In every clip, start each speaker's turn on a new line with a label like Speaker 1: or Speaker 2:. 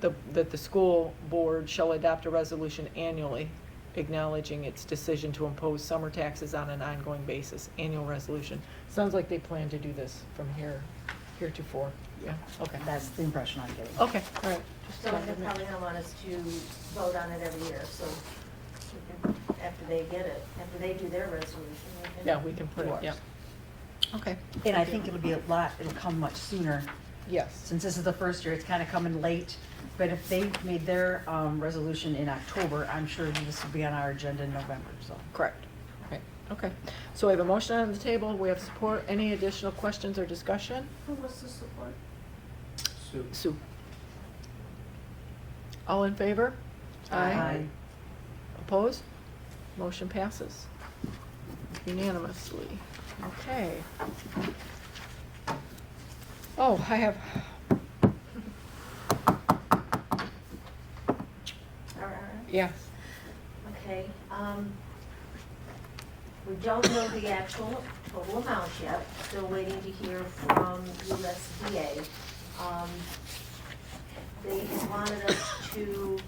Speaker 1: the, that the school board shall adopt a resolution annually acknowledging its decision to impose summer taxes on an ongoing basis, annual resolution. Sounds like they plan to do this from here, heretofore. Yeah, okay.
Speaker 2: That's the impression I'm getting.
Speaker 1: Okay, all right. Just
Speaker 3: So
Speaker 1: wanted
Speaker 3: they're
Speaker 1: to make-
Speaker 3: probably gonna want us to vote on it every year, so we can- after they get it, after they do their resolution, we can.
Speaker 1: Yeah, we can put it,
Speaker 2: Yours.
Speaker 1: yeah. Okay.
Speaker 2: And I think it'll be a lot, it'll come much sooner.
Speaker 1: Yes.
Speaker 2: Since this is the first year, it's kind of coming late. But if they made their um, resolution in October, I'm sure this will be on our agenda in November, so.
Speaker 1: Correct. Right, okay. So we have a motion on the table, we have support, any additional questions or discussion?
Speaker 3: Who was the support?
Speaker 4: Sue.
Speaker 1: Sue? All in favor?
Speaker 2: Aye.
Speaker 1: Opposed? Motion passes unanimously. Okay. Oh, I have,
Speaker 3: All right.
Speaker 1: yes,
Speaker 3: Okay, um, we don't know the actual total amount yet, still waiting to hear from USDA. Um, They wanted us to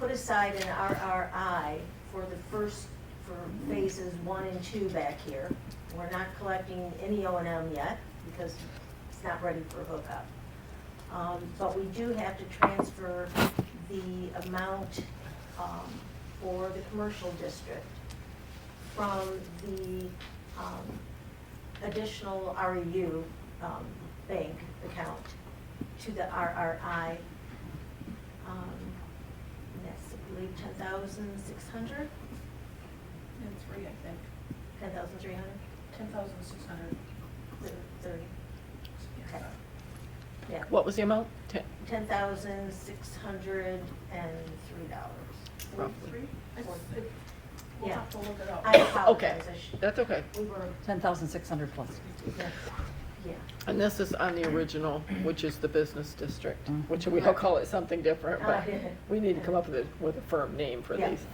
Speaker 3: put aside an RRI for the first, for phases one and two back here. We're not collecting any O and M yet, because it's not ready for hookup. Um, But we do have to transfer the amount um, for the commercial district from the um, additional REU um, bank account to the RRI. um, And that's, I believe, 10,600,
Speaker 5: And three, I think,
Speaker 3: 10,300,
Speaker 5: ten thousand six hundred.
Speaker 3: 30, okay. Yeah,
Speaker 1: what was the amount? Ten-
Speaker 3: $10,603.
Speaker 1: Roughly.
Speaker 5: We'll
Speaker 3: Yeah.
Speaker 5: have to look it up.
Speaker 3: I apologize, I should,
Speaker 1: That's okay.
Speaker 3: we were,
Speaker 2: Ten thousand six hundred plus.
Speaker 3: yeah, yeah.
Speaker 1: And this is on the original, which is the business district, which we all call it something different, but we need to come up with a, with a firm name for
Speaker 3: Yeah.
Speaker 1: these.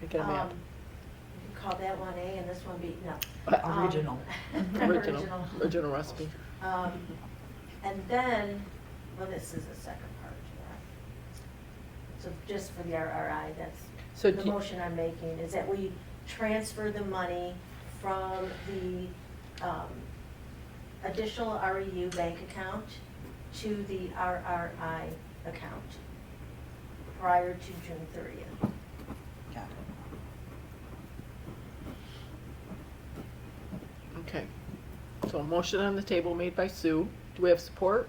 Speaker 1: Make it a map.
Speaker 3: Um, you Call that one A and this one B, no.
Speaker 1: Uh,
Speaker 3: Um,
Speaker 2: Original.
Speaker 1: Original, original recipe.
Speaker 3: Um, And then, well, this is the second part to that. So just for the RRI, that's,
Speaker 1: So
Speaker 3: the
Speaker 1: do-
Speaker 3: motion I'm making is that we transfer the money from the um, additional REU bank account to the RRI account prior to June thirtieth.
Speaker 2: Got it.
Speaker 1: Okay. So a motion on the table made by Sue. Do we have support?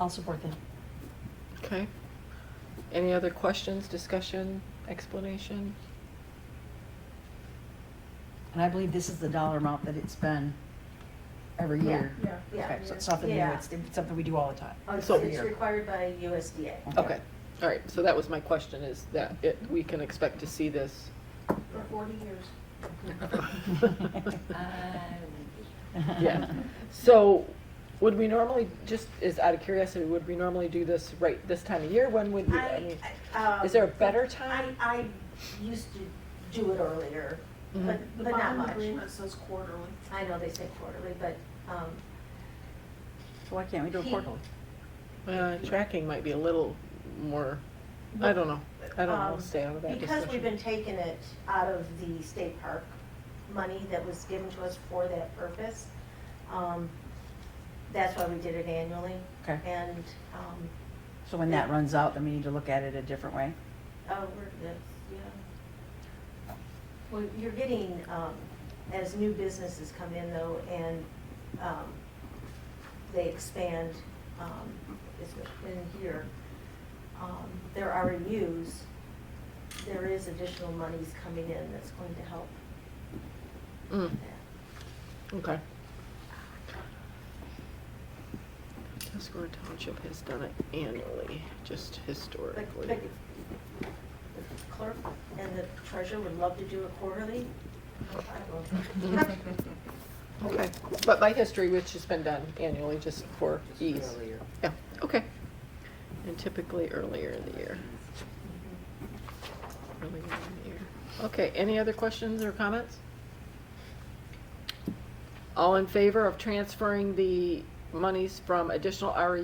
Speaker 2: I'll support that.
Speaker 1: Okay. Any other questions, discussion, explanation?
Speaker 2: And I believe this is the dollar amount that it's been every
Speaker 3: Yeah.
Speaker 2: year.
Speaker 5: Yeah.
Speaker 3: Yeah.
Speaker 2: Okay, so it's nothing new,
Speaker 3: Yeah.
Speaker 2: it's it's something we do all the time.
Speaker 3: Oh, It's
Speaker 1: So-
Speaker 3: it's required by USDA.
Speaker 1: Okay. All right. So that was my question is that it, we can expect to see this.
Speaker 5: For forty years.
Speaker 1: Uh, Yeah. So would we normally, just as out of curiosity, would we normally do this right this time of year? When would we? I
Speaker 3: I,
Speaker 1: mean,
Speaker 3: um,
Speaker 1: Is there a better time?
Speaker 3: I, I used to do it earlier, but,
Speaker 1: Mhm.
Speaker 5: The
Speaker 3: but not
Speaker 5: bond
Speaker 3: much.
Speaker 5: agreement says quarterly.
Speaker 3: I know they say quarterly, but, um,
Speaker 2: So why can't we do it quarterly?
Speaker 1: Uh, tracking might be a little more, I don't know. I don't know. We'll
Speaker 3: um,
Speaker 1: stay out of that
Speaker 3: Because we've been
Speaker 1: discussion.
Speaker 3: taking it out of the state park money that was given to us for that purpose, um, that's why we did it annually.
Speaker 2: Okay.
Speaker 3: And, um,
Speaker 2: So when that runs out, then we need to look at it a different way?
Speaker 3: Oh, we're, that's, yeah. Well, you're getting, um, as new businesses come in though, and, um, they expand, um, it's in here, um, there are reuse, there is additional monies coming in that's going to help
Speaker 1: Mm,
Speaker 3: that.
Speaker 1: Okay. Tuscarora Township has done it annually, just
Speaker 3: But,
Speaker 1: historically.
Speaker 3: but the clerk and the treasurer would love to do it quarterly. I don't know.
Speaker 1: Okay, but by history, which has been done annually, just for ease. Yeah, okay. And typically earlier in the year. Earlier in the year. Okay, any other questions or comments? All in favor of transferring the monies from additional E REU